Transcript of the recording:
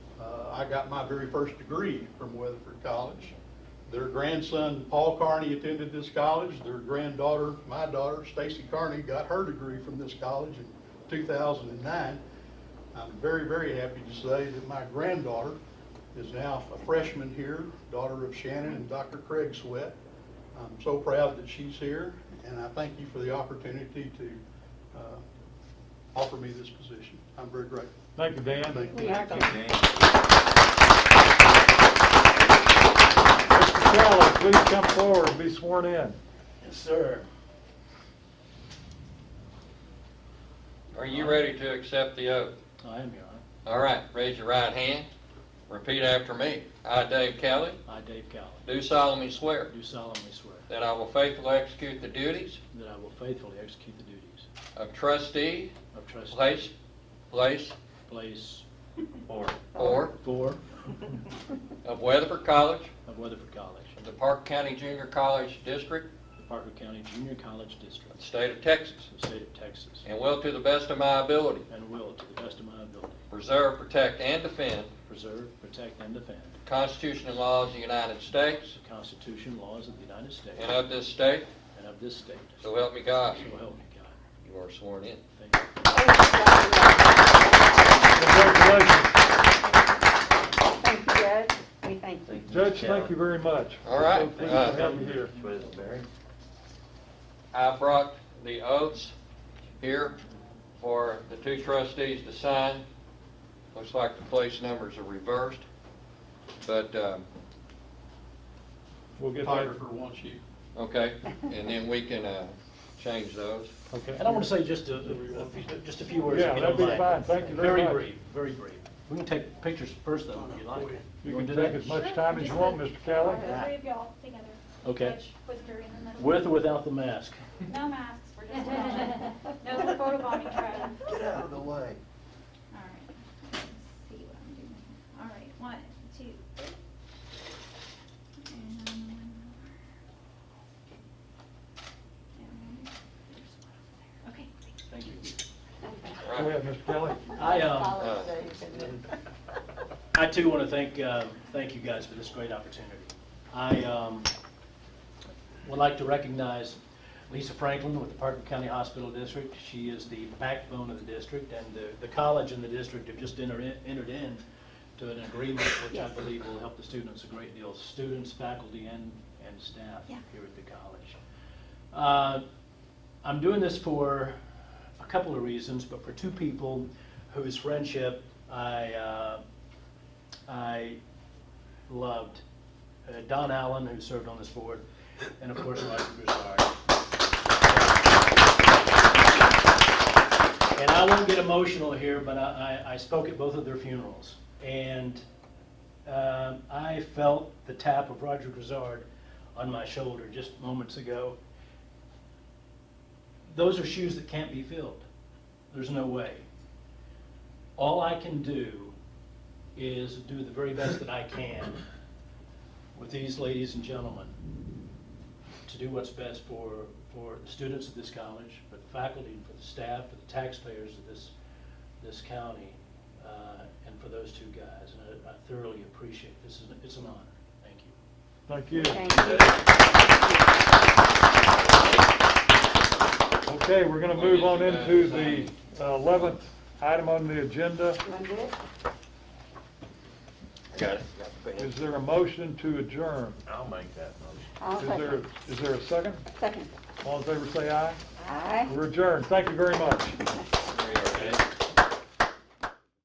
Uh, I got my very first degree from Weatherford College. Their grandson, Paul Carney, attended this college. Their granddaughter, my daughter, Stacy Carney, got her degree from this college in 2009. I'm very, very happy to say that my granddaughter is now a freshman here, daughter of Shannon and Dr. Craig Sweat. I'm so proud that she's here, and I thank you for the opportunity to uh, offer me this position. I'm very grateful. Thank you, Dan. Thank you. Welcome. Mr. Callis, please come forward and be sworn in. Yes, sir. Are you ready to accept the oath? I am, Your Honor. All right, raise your right hand. Repeat after me. I, Dave Kelly, I, Dave Cowley, do solemnly swear do solemnly swear that I will faithfully execute the duties that I will faithfully execute the duties of trustee, of trustee, place, place, place or four of Weatherford College of Weatherford College, of the Park County Junior College District the Parker County Junior College of District, the State of Texas, of the state of Texas, and will to the best of my ability and will, to the best of my ability, preserve, protect, and defend preserve, protect, and defend the Constitution and laws of the United States the Constitution, laws of the United States, and of this state, and of this state. so help me God. So help me God. You are sworn in. Thank you. Congratulations. Thank you, Judge. We thank you. Judge, thank you very much. All right. We're so pleased to have you here. I brought the oaths here for the two trustees to sign. Looks like the place numbers are reversed, but, um, We'll get that. Photographer wants you. okay, and then we can uh, change those. Okay. And I want to say just a, a few- just a few words. if Yeah, you that'd don't be mind. fine. Thank you very much. brief, very brief. We can take pictures first though, if you like. You wanna can do take that? as much time as you want, Mr. Kelly. The three of y'all together. Okay. Judge, With her in the middle. With or without the mask? No masks, we're just, watching. no photobombing trial. Get out of the way. All right. Let's see what I'm doing. All right, one, two, three. And one more. And there's one over there. Okay, thank you. Thank you. All Go right. ahead, Mr. Kelly. I, um, Follow Dave and then- I too want to thank, uh, thank you guys for this great opportunity. I um, would like to recognize Lisa Franklin with the Parker County Hospital District. She is the backbone of the district, and the- the college and the district have just enter- entered in to an agreement which I believe will help the students a great deal, students, faculty, and and staff Yeah. here at the college. Uh, I'm doing this for a couple of reasons, but for two people whose friendship I, uh, I loved. Uh, Don Allen, who served on this board, and of course, Roger Broussard. And I won't get emotional here, but I, I I spoke at both of their funerals. And um, I felt the tap of Roger Grizzard on my shoulder just moments ago. Those are shoes that can't be filled. There's no way. All I can do is do the very best that I can with these ladies and gentlemen to do what's best for, for the students of this college, for the faculty, for the staff, for the taxpayers of this, this county, uh, and for those two guys. And I I thoroughly appreciate, this is, it's an honor. Thank you. Thank you. Thank you. Okay, we're gonna move on into the uh, eleventh item on the agenda. You want to do it? Got it. Is there a motion to adjourn? I'll make that motion. I'll Is there, second. is there a second? Second. All in favor, say aye. Aye. We're adjourned. Thank you very much. There you are, Dave.